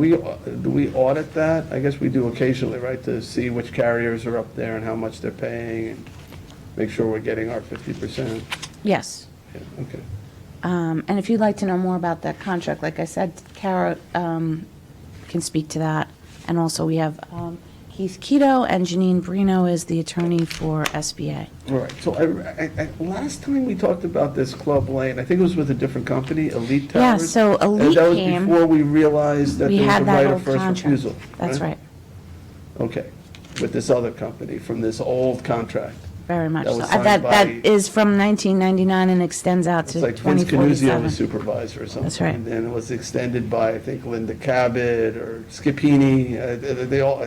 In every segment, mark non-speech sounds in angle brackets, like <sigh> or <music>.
We, do we audit that? I guess we do occasionally, right, to see which carriers are up there and how much they're paying, and make sure we're getting our 50%. Yes. Yeah, Okay. Um, And if you'd like to know more about that contract, like I said, Kara um, can speak to that. And also, we have um, Keith Keto and Janine Brino is the attorney for SBA. All right, so I, I, I- last time we talked about this Club Lane, I think it was with a different company, Elite Yeah, Towers. so And Elite that was came, before we realized that we there was a had right that whole of first contract. refusal. That's right, Okay, with this other company from this old contract. very much That so. was Uh, That, signed that by- is from 1999 and extends out It's to like Vince Canuzio was 2047. supervisor or something. That's right. And then it was extended by, I think, Linda Cabot or Scipini, uh, they they all,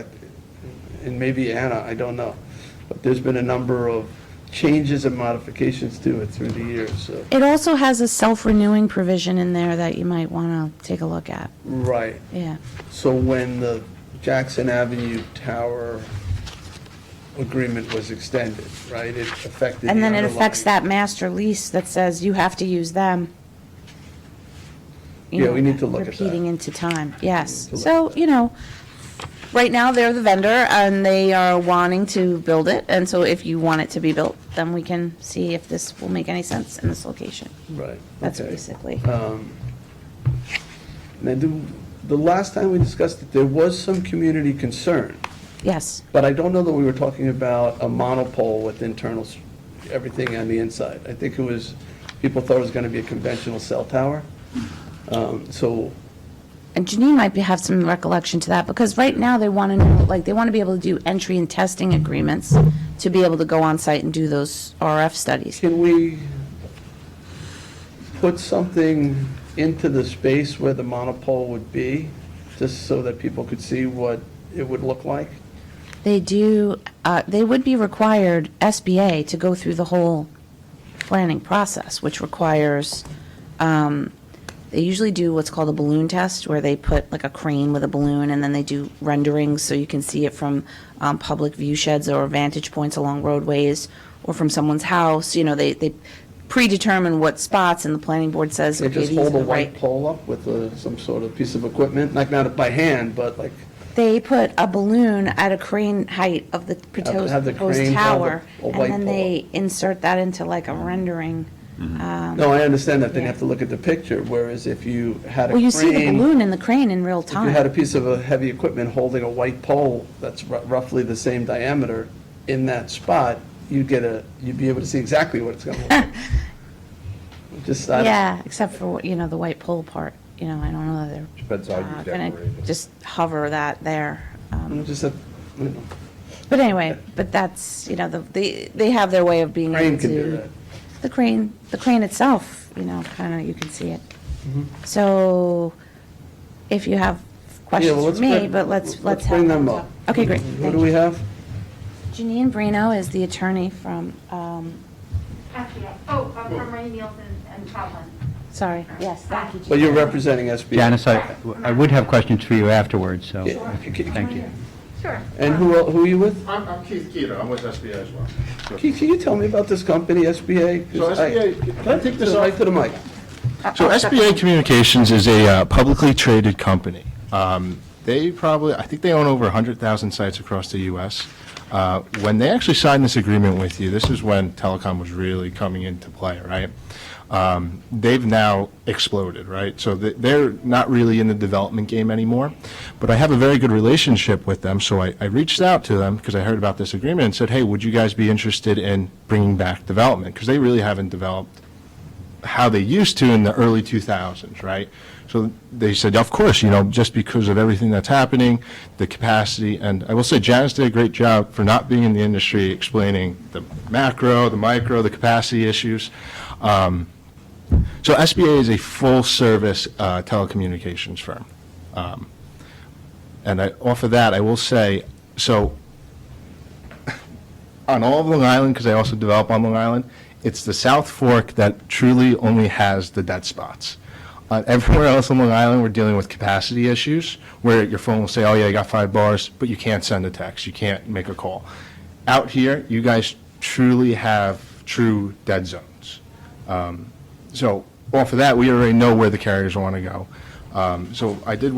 and maybe Anna, I don't know. But there's been a number of changes and modifications to it through the years, so. It also has a self-renewing provision in there that you might want to take a look at, Right, yeah. so when the Jackson Avenue Tower agreement was extended, right, it affected the And then it affects underlying- that master lease that says you have to use them. You Yeah, know, we need to look at that. Repeating into time, yes. We need to look So, you know, right now, they're the vendor, and they are wanting to build it, and so if you want it to be built, then we can see if this will make any sense in this location. Right. That's okay. basically, Um, Now, the, the last time we discussed it, there was some community concern, yes, but I don't know that we were talking about a monopole with internal, s- everything on the inside. I think it was, people thought it was going to be a conventional cell tower. Um, So, and Janine might be, have some recollection to that, because right now, they want to know, like, they want to be able to do entry and testing agreements to be able to go on-site and do those RF studies. can we put something into the space where the monopole would be, just so that people could see what it would look like? They do, uh, they would be required, SBA, to go through the whole planning process, which requires, um, they usually do what's called a balloon test, where they put like a crane with a balloon, and then they do renderings, so you can see it from um, public view sheds or vantage points along roadways, or from someone's house, you know, they, they predetermine what spots, and the planning board says, They okay, just these are hold a the white right. pole up with uh, some sort of piece of equipment, like not by hand, but like, They put a balloon at a crane height of the proposed have the proposed crane hold tower, a- a and white then pole. they insert that into like a rendering. um, no, I understand that, then you Yeah. have to look at the picture, whereas if you had a Well, crane. you see the balloon in the crane in real If you had a time. piece of uh, heavy equipment holding a white pole that's ru- roughly the same diameter in that spot, you'd get a, you'd be able to see exactly what it's gonna look like. <laughs> Just, I don't- Yeah, except for, you know, the white pole part, you know, I don't know that Depends how they're you uh, gonna decorate it. just hover that there. um, just, a- you know, But anyway, but that's, you know, the, they, they have their way of being crane able can do to. that. The crane, the crane itself, you know, kinda, you can see it. So if you have Mm-hmm. Yeah, questions well, let's for me, bring- but let's, let's have. Bring them up. Okay, great. Who thank do you. we have? Janine Brino is the attorney from, um, SBA. Oh, uh, from Ray Nielsen and Chaplin. sorry, yes, thank you. Well, you're Janine. representing SBA. Janice, I I would have questions for you afterwards, so, Yeah, c- c- thank you. Sure. And who, el- who are you with? I'm, I'm Keith Keto, I'm with SBA as well. Keith, can you tell me about this company, SBA? So SBA can I take this off? Right to the mic. So SBA Communications is a uh, publicly traded company. Um, They probably, I think they own over 100,000 sites across the U.S. Uh, When they actually signed this agreement with you, this is when telecom was really coming into play, right? Um, They've now exploded, right? So th- they're not really in the development game anymore, but I have a very good relationship with them, so I I reached out to them because I heard about this agreement and said, hey, would you guys be interested in bringing back development? Because they really haven't developed how they used to in the early 2000s, right? So they said, of course, you know, just because of everything that's happening, the capacity, and I will say Janice did a great job for not being in the industry explaining the macro, the micro, the capacity issues. Um, So SBA is a full-service uh, telecommunications firm. Um, And I, off of that, I will say, so on all of Long Island, because I also develop on Long Island, it's the South Fork that truly only has the dead spots. Uh, everywhere else on Long Island, we're dealing with capacity issues where your phone will say, oh, yeah, I got five bars, but you can't send a text, you can't make a call. Out here, you guys truly have true dead zones. Um, so off of that, we already know where the carriers want to go. Um, so I did